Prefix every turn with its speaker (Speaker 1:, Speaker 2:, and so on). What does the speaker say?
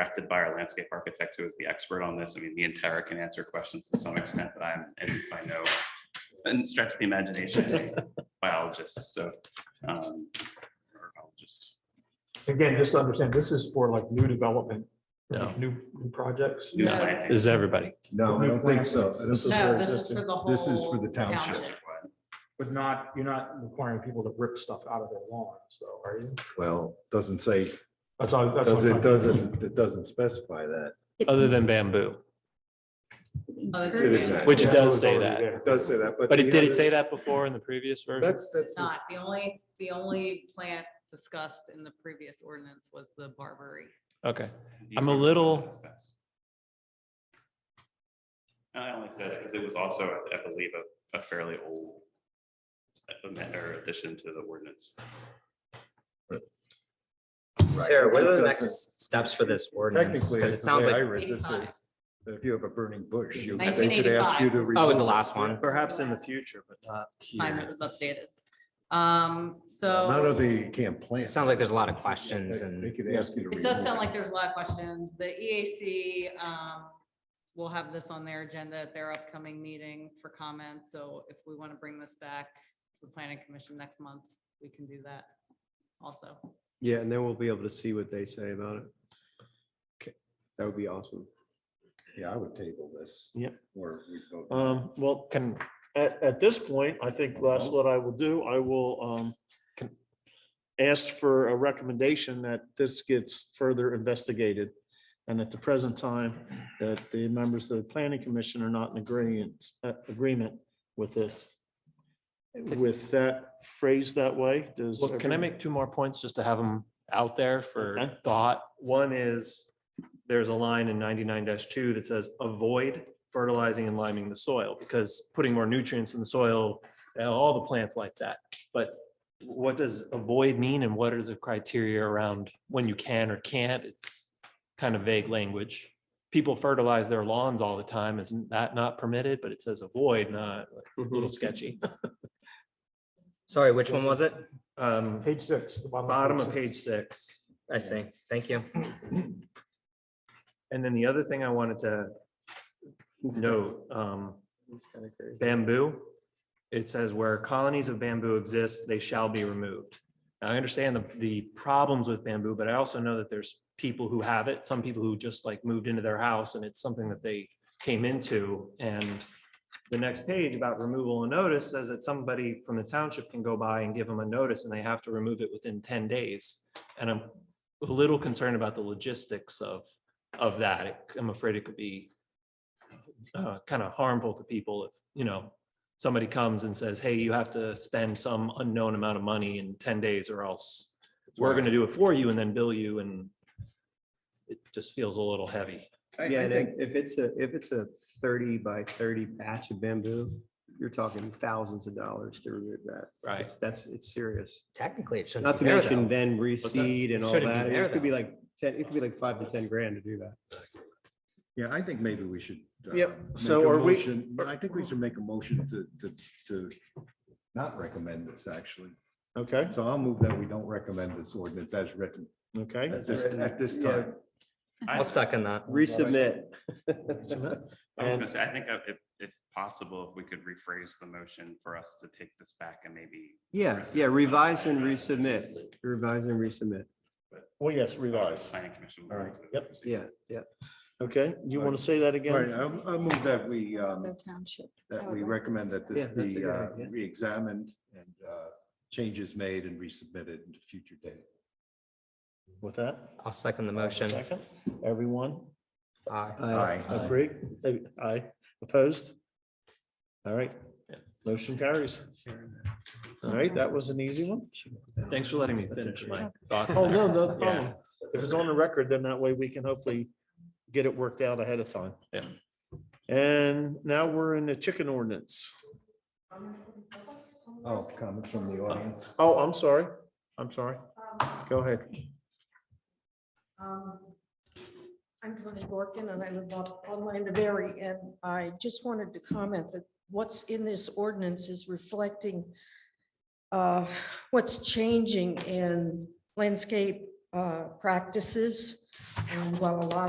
Speaker 1: directed by our landscape architect who is the expert on this. I mean, the entire can answer questions to some extent, but I'm, and I know, and stretch the imagination, a biologist, so. um, or I'll just
Speaker 2: Again, just to understand, this is for like new development,
Speaker 3: No.
Speaker 2: like new, new projects.
Speaker 1: do the
Speaker 4: No.
Speaker 1: planting.
Speaker 3: This is everybody.
Speaker 5: No, I don't think so. I don't-
Speaker 2: for
Speaker 4: No, this is
Speaker 2: existing.
Speaker 4: for the whole.
Speaker 5: This is for the township.
Speaker 2: But not, you're not requiring people to rip stuff out of their lawns, though, are you?
Speaker 5: Well, doesn't say,
Speaker 2: That's all. that's all
Speaker 5: does it,
Speaker 2: I'm-
Speaker 5: doesn't, it doesn't specify that.
Speaker 3: other than bamboo,
Speaker 4: Other
Speaker 5: It
Speaker 4: than
Speaker 5: is that.
Speaker 3: which it
Speaker 2: Yeah,
Speaker 3: does
Speaker 2: it's
Speaker 3: say
Speaker 2: already
Speaker 3: that.
Speaker 2: there.
Speaker 5: It does say that, but.
Speaker 3: But it
Speaker 5: the
Speaker 3: did it say
Speaker 5: other-
Speaker 3: that before in the previous version?
Speaker 5: That's, that's,
Speaker 4: Not, the only, the only plant discussed in the previous ordinance was the barberry.
Speaker 3: Okay. I'm a little-
Speaker 1: I only said it because it was also, I- I believe, a, a fairly old amendment or addition to the ordinance.
Speaker 6: Sarah, what are the
Speaker 5: Doesn't-
Speaker 6: next steps for this ordinance?
Speaker 5: Technically,
Speaker 6: Because
Speaker 5: it's
Speaker 6: it
Speaker 5: the way
Speaker 6: sounds
Speaker 5: I
Speaker 6: like,
Speaker 5: read this
Speaker 4: Eighty-five.
Speaker 5: is, that if you have a burning bush, you, they could ask you
Speaker 4: 1985.
Speaker 5: to.
Speaker 6: oh, it was
Speaker 5: remove
Speaker 6: the
Speaker 5: it.
Speaker 6: last one.
Speaker 3: Perhaps in the future, but not
Speaker 4: Time it was updated. Um, so.
Speaker 5: None of the, you can't plant.
Speaker 6: It sounds like there's a lot of questions
Speaker 5: They-
Speaker 6: and-
Speaker 5: They could ask you to.
Speaker 4: It does
Speaker 5: remove
Speaker 4: sound like there's a lot of questions. The EAC, um, will have this on their agenda at their upcoming meeting for comments. So if we want to bring this back to the planning commission next month, we can do that also.
Speaker 7: Yeah, and then we'll be able to see what they say about it.
Speaker 3: Okay.
Speaker 7: That would be awesome.
Speaker 5: Yeah, I would table this.
Speaker 8: Yep.
Speaker 5: Or we vote.
Speaker 8: Um, well, can, at, at this point, I think that's what I will do. I will, um, can- ask for a recommendation that this gets further investigated. And at the present time, that the members of the planning commission are not in agreement, uh, agreement with this. With that phrase that way, does.
Speaker 3: Well, can I
Speaker 8: everyone-
Speaker 3: make two more points just to have them out there for
Speaker 8: Okay.
Speaker 3: thought? One is, there's a line in ninety-nine two that says, avoid fertilizing and liming the soil, because putting more nutrients in the soil, and all the plants like that. But what does avoid mean and what is the criteria around when you can or can't? It's kind of vague language. People fertilize their lawns all the time. Isn't that not permitted? But it says avoid, not, a little Mm-hmm. sketchy.
Speaker 6: Sorry, which one was it?
Speaker 3: Um,
Speaker 2: Page six. the
Speaker 3: bottom of
Speaker 2: six.
Speaker 3: page six.
Speaker 6: I see. Thank you.
Speaker 3: And then the other thing I wanted to note, um, bamboo. It says where colonies of bamboo exist, they shall be removed. Now, I understand the, the problems with bamboo, but I also know that there's people who have it, some people who just like moved into their house and it's something that they came into. And the next page about removal and notice says that somebody from the township can go by and give them a notice and they have to remove it within ten days. And I'm a little concerned about the logistics of of that, it- I'm afraid it could be uh, kind of harmful to people if, you know, somebody comes and says, hey, you have to spend some unknown amount of money in ten days or else we're going to do it for you and then bill you and it just feels a little heavy.
Speaker 5: I- I
Speaker 7: Yeah, and
Speaker 5: think-
Speaker 7: if if it's a, if it's a thirty by thirty patch of bamboo, you're talking thousands of dollars to remove that.
Speaker 3: Right.
Speaker 7: It's- That's, it's serious.
Speaker 6: Technically, it shouldn't.
Speaker 7: Not to
Speaker 6: be there,
Speaker 7: mention
Speaker 6: though.
Speaker 7: then
Speaker 3: that?
Speaker 7: reseed and all
Speaker 6: Shouldn't be
Speaker 7: that. I mean,
Speaker 6: there,
Speaker 7: It could be
Speaker 6: though.
Speaker 7: like ten, it could be like five to ten grand to do that.
Speaker 5: Yeah, I think maybe we should. uh,
Speaker 8: Yep,
Speaker 5: make
Speaker 8: so
Speaker 5: a
Speaker 8: are we-
Speaker 5: motion- I think we should make a motion to, to, to not recommend this, actually.
Speaker 8: Okay,
Speaker 5: So I'll move that we don't recommend this ordinance as written
Speaker 8: okay.
Speaker 5: at this, at this
Speaker 7: Yeah.
Speaker 5: time.
Speaker 1: I-
Speaker 6: I'll second that.
Speaker 7: Resubmit.
Speaker 1: I was
Speaker 8: And-
Speaker 1: gonna say, I think uh, if, if possible, if we could rephrase the motion for us to take this back and maybe.
Speaker 7: Yeah, yeah, revise and resubmit, revise and resubmit.
Speaker 8: Well, yes, revise.
Speaker 1: Planning commission.
Speaker 5: All right.
Speaker 8: Yep.
Speaker 7: Yeah, yeah.
Speaker 8: Okay, you want to say that
Speaker 5: All right,
Speaker 8: again?
Speaker 5: I'll, I'll move that we, um,
Speaker 4: township.
Speaker 5: that we recommend that this
Speaker 7: Yeah, that's a
Speaker 5: be
Speaker 7: good
Speaker 5: uh,
Speaker 7: idea.
Speaker 5: re-examined and uh, changes made and resubmitted in a future date.
Speaker 8: With that?
Speaker 6: I'll second the motion.
Speaker 8: Second, everyone?
Speaker 6: Aye.
Speaker 7: Aye.
Speaker 8: Agreed? Uh, Aye. Opposed? All right.
Speaker 3: Yeah.
Speaker 8: Motion carries. All right, that was an easy one.
Speaker 3: Thanks for letting me finish my thoughts.
Speaker 8: Oh, no,
Speaker 3: there.
Speaker 8: no
Speaker 3: Yeah.
Speaker 8: problem. If it's on the record, then that way we can hopefully get it worked out ahead of time.
Speaker 3: Yeah.
Speaker 8: And now we're in the chicken ordinance.
Speaker 5: Oh, comments from the audience?
Speaker 8: Oh, I'm sorry. I'm sorry. Go ahead.
Speaker 9: Um, I'm Tony Dorkin and I live up on Landaberry and I just wanted to comment that what's in this ordinance is reflecting uh, what's changing in landscape uh, practices. And while a lot of